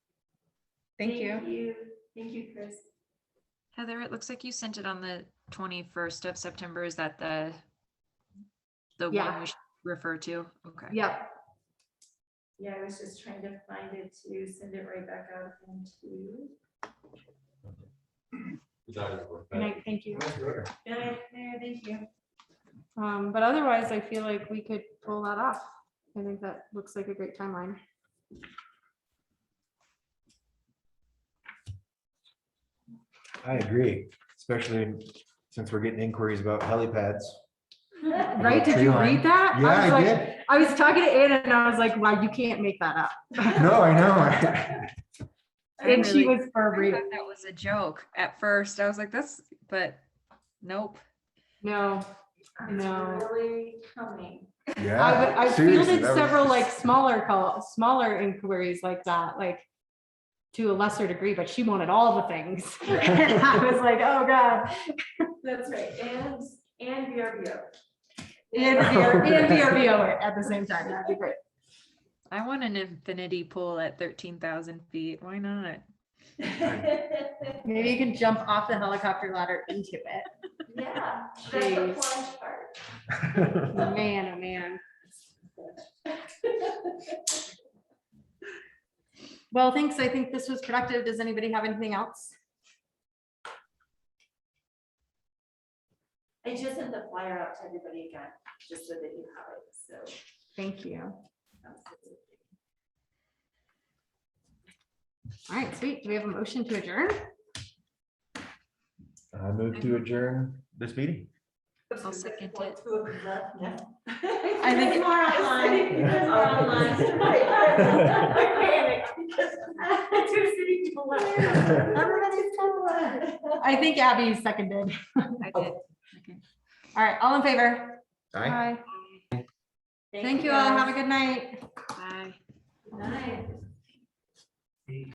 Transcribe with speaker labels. Speaker 1: Thank you.
Speaker 2: Thank you, Chris.
Speaker 3: Heather, it looks like you sent it on the twenty-first of September. Is that the the one
Speaker 2: Yeah.
Speaker 3: we should refer to? Okay.
Speaker 2: Yep. Yeah, I was just trying to find it to send it right back out into.
Speaker 4: Good
Speaker 5: Thank
Speaker 4: night, thank you.
Speaker 2: Yeah, yeah, thank you.
Speaker 4: Um, but otherwise, I feel like we could pull that off. I think that looks like a great timeline.
Speaker 6: I agree, especially since we're getting inquiries about helipads.
Speaker 4: Right? Did
Speaker 6: Tree
Speaker 4: you
Speaker 6: line.
Speaker 4: read that?
Speaker 6: Yeah,
Speaker 4: was
Speaker 6: I
Speaker 4: like-
Speaker 6: did.
Speaker 4: I was talking to Anna and I was like, wow, you can't make that up.
Speaker 6: No, I know.
Speaker 4: And she
Speaker 3: really-
Speaker 4: was for
Speaker 3: I
Speaker 4: real.
Speaker 3: thought that was a joke at first. I was like, that's, but nope.
Speaker 4: No, No.
Speaker 2: It's really coming.
Speaker 6: Yeah.
Speaker 4: I, would- I
Speaker 6: seriously,
Speaker 4: fielded
Speaker 6: that was
Speaker 4: several like
Speaker 6: just-
Speaker 4: smaller call, smaller inquiries like that, like to a lesser degree, but she wanted all the things. And I was like, oh God.
Speaker 2: That's right, and, and VRBO.
Speaker 4: And VR and VRBO at the same time. That'd be great.
Speaker 3: I want an infinity pool at thirteen thousand feet. Why not?
Speaker 4: Maybe you can jump off the helicopter ladder into it.
Speaker 2: Yeah, that's the
Speaker 4: Jeez.
Speaker 2: plunge part.
Speaker 4: Man, oh man. Well, thanks. I think this was productive. Does anybody have anything else?
Speaker 2: I just sent the flyer out to everybody again, just so that you have it, so.
Speaker 4: Thank you. All
Speaker 2: that's it.
Speaker 4: right, sweet. Do we have a motion to adjourn?
Speaker 6: I move to adjourn this meeting.
Speaker 3: I'll second it.
Speaker 2: I
Speaker 4: think-
Speaker 2: More online. Because we're online. I panicked because two city people left. Everybody's coming.
Speaker 4: I think Abby seconded.
Speaker 3: I did. Okay.
Speaker 4: All right, all in favor?
Speaker 6: Aye.
Speaker 4: Thank you all. Have a good night.
Speaker 3: Bye.
Speaker 2: Good night.